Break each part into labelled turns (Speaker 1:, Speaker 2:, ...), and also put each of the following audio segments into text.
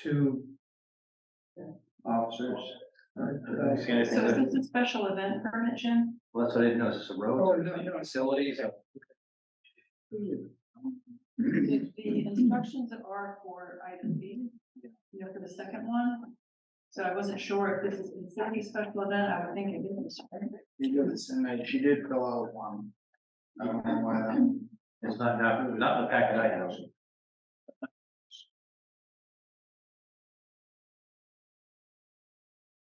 Speaker 1: two officers. uh,
Speaker 2: I was gonna say,
Speaker 3: So is this a special event permit, Jim?
Speaker 2: well, that's what I didn't know, is this a
Speaker 1: Oh,
Speaker 2: road,
Speaker 1: no, no, it's-
Speaker 2: facilities, or-
Speaker 3: The the instructions are for item B, you know, for the second one. So I wasn't sure if this is considered a special event, I would think it is.
Speaker 1: You do this, and I- she did fill out one. I don't know why that.
Speaker 2: it's not, not, not in the packet I have.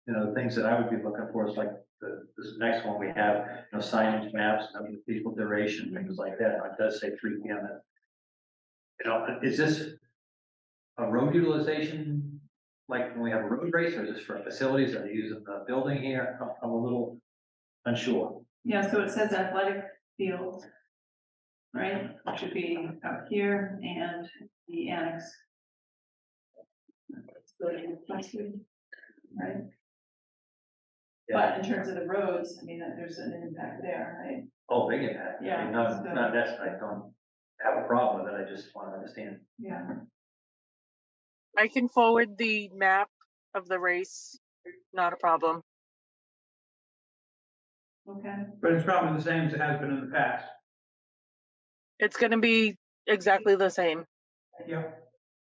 Speaker 2: You know, the things that I would be looking for is like, the, this next one we have, you know, signage maps, I mean, people duration, things like that, it does say three P M. You know, is this a road utilization, like when we have a road race, or is this for facilities, are they using the building here, I'm- I'm a little unsure.
Speaker 3: Yeah, so it says athletic field. Right, It should be up here and the annex. Right, but in terms of the roads, I mean, there's an impact there, right?
Speaker 2: Oh, big impact. I
Speaker 3: Yeah,
Speaker 2: mean, not,
Speaker 3: so-
Speaker 2: not that's, I don't have a problem with it, I just want to understand.
Speaker 3: Yeah.
Speaker 4: I can forward the map of the race. Not a problem.
Speaker 3: Okay,
Speaker 1: But it's probably the same as it has been in the past.
Speaker 4: It's going to be exactly the same.
Speaker 1: Yeah.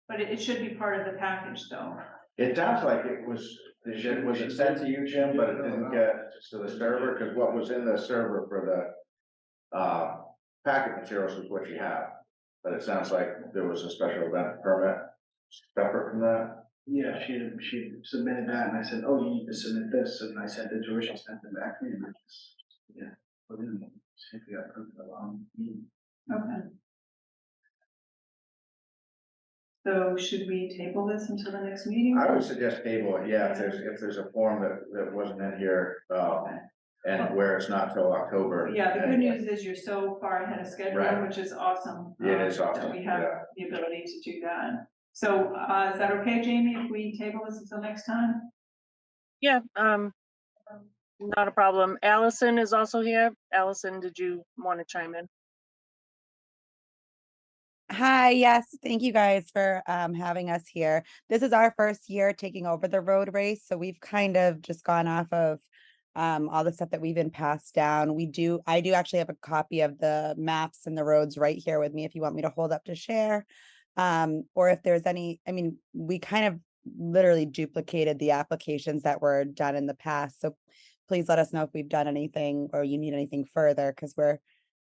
Speaker 3: but it, it should be part of the package though.
Speaker 5: It sounds like it was, it should- was it sent to you, Jim, but it didn't get to the server, because what was in the server for the uh, packet materials is what you have. But it sounds like there was a special event permit separate from that.
Speaker 1: Yeah, she, she submitted that, and I said, oh, you need to submit this, and I sent it to her, she sent it back to me, and I just, yeah. put it in, see if we got proof of, um,
Speaker 3: Okay. So should we table this until the next meeting?
Speaker 5: I would suggest table it, yeah, if there's, if there's a form that, that wasn't in here, uh,
Speaker 3: Okay.
Speaker 5: and where it's not till October.
Speaker 3: Yeah, the good
Speaker 5: and-
Speaker 3: news is you're so far ahead of schedule,
Speaker 5: Right.
Speaker 3: which is awesome.
Speaker 5: Yeah, It is
Speaker 3: um,
Speaker 5: awesome,
Speaker 3: That we have
Speaker 5: yeah.
Speaker 3: the ability to do that. So, uh, is that okay, Jamie, if we table this until next time?
Speaker 4: Yeah, um, not a problem. Allison is also here. Allison, did you want to chime in?
Speaker 6: Hi, yes, thank you guys for um, having us here. This is our first year taking over the road race, so we've kind of just gone off of um, all the stuff that we've been passed down. We do, I do actually have a copy of the maps and the roads right here with me if you want me to hold up to share. Um, or if there's any, I mean, we kind of literally duplicated the applications that were done in the past. So please let us know if we've done anything or you need anything further because we're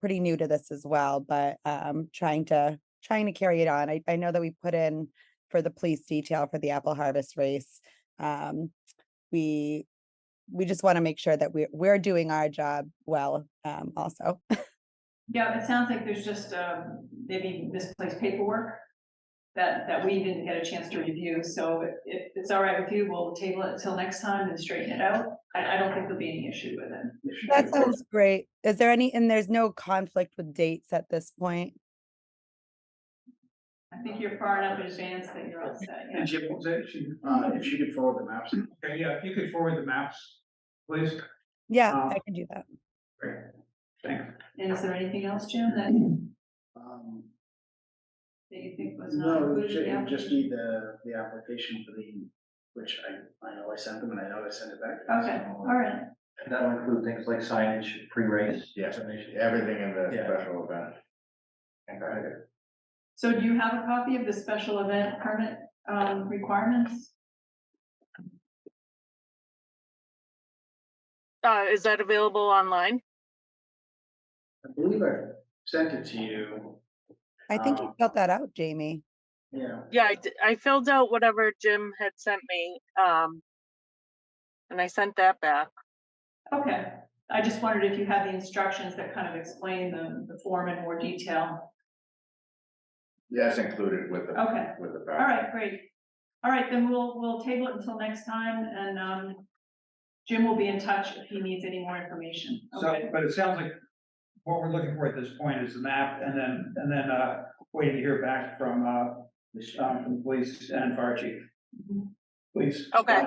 Speaker 6: pretty new to this as well, but um, trying to trying to carry it on. I, I know that we put in for the police detail for the apple harvest race. Um, we we just want to make sure that we're we're doing our job well um, also.
Speaker 3: Yeah, it sounds like there's just, um, maybe misplaced paperwork that, that we didn't get a chance to review. So if- if it's all right with you, we'll table it until next time and straighten it out. I, I don't think there'll be any issue with it.
Speaker 1: if she-
Speaker 6: That sounds great. Is there any and there's no conflict with dates at this point?
Speaker 3: I think you're far enough in advance that you're all set, yeah.
Speaker 1: And Jim, was it, she, uh, if she could forward the maps. Okay, yeah, if you could forward the maps, please.
Speaker 6: Yeah,
Speaker 1: Uh,
Speaker 6: I can do that.
Speaker 1: Great, thanks.
Speaker 3: And is there anything else, Jim, that, that
Speaker 1: Um,
Speaker 3: you think was not
Speaker 1: No, we
Speaker 3: included?
Speaker 1: ju-
Speaker 3: in the
Speaker 1: we just
Speaker 3: application?
Speaker 1: need the, the application for the, which I, I know I sent them and I know I sent it back. to them,
Speaker 3: Okay,
Speaker 1: so-
Speaker 3: all right,
Speaker 2: And that'll include things like signage, pre-race.
Speaker 5: Yes,
Speaker 2: information.
Speaker 5: everything in the
Speaker 2: Yeah.
Speaker 5: special event. Okay.
Speaker 3: so do you have a copy of the special event permit, um, requirements?
Speaker 4: Uh, is that available online?
Speaker 1: I believe I sent it to you,
Speaker 6: I think
Speaker 1: uh,
Speaker 6: you felt that out, Jamie.
Speaker 1: yeah.
Speaker 4: Yeah, I, d- I filled out whatever Jim had sent me. Um, and I sent that back.
Speaker 3: Okay, I just wondered if you had the instructions that kind of explain the, the form in more detail.
Speaker 5: Yes, included with the,
Speaker 3: Okay,
Speaker 5: with the.
Speaker 3: all right, great. All right, then we'll, we'll table it until next time and, um, Jim will be in touch if he needs any more information.
Speaker 7: So,
Speaker 3: Okay,
Speaker 7: but it sounds like what we're looking for at this point is an app and then, and then, uh, waiting to hear back from, uh, um, from the police and fire chief. Please.
Speaker 4: Okay.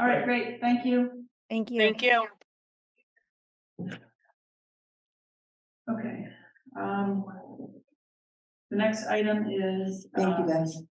Speaker 3: all right, great, thank you.
Speaker 6: Thank you.
Speaker 4: Thank you.
Speaker 3: Okay, um. The next item is. Thank you, guys.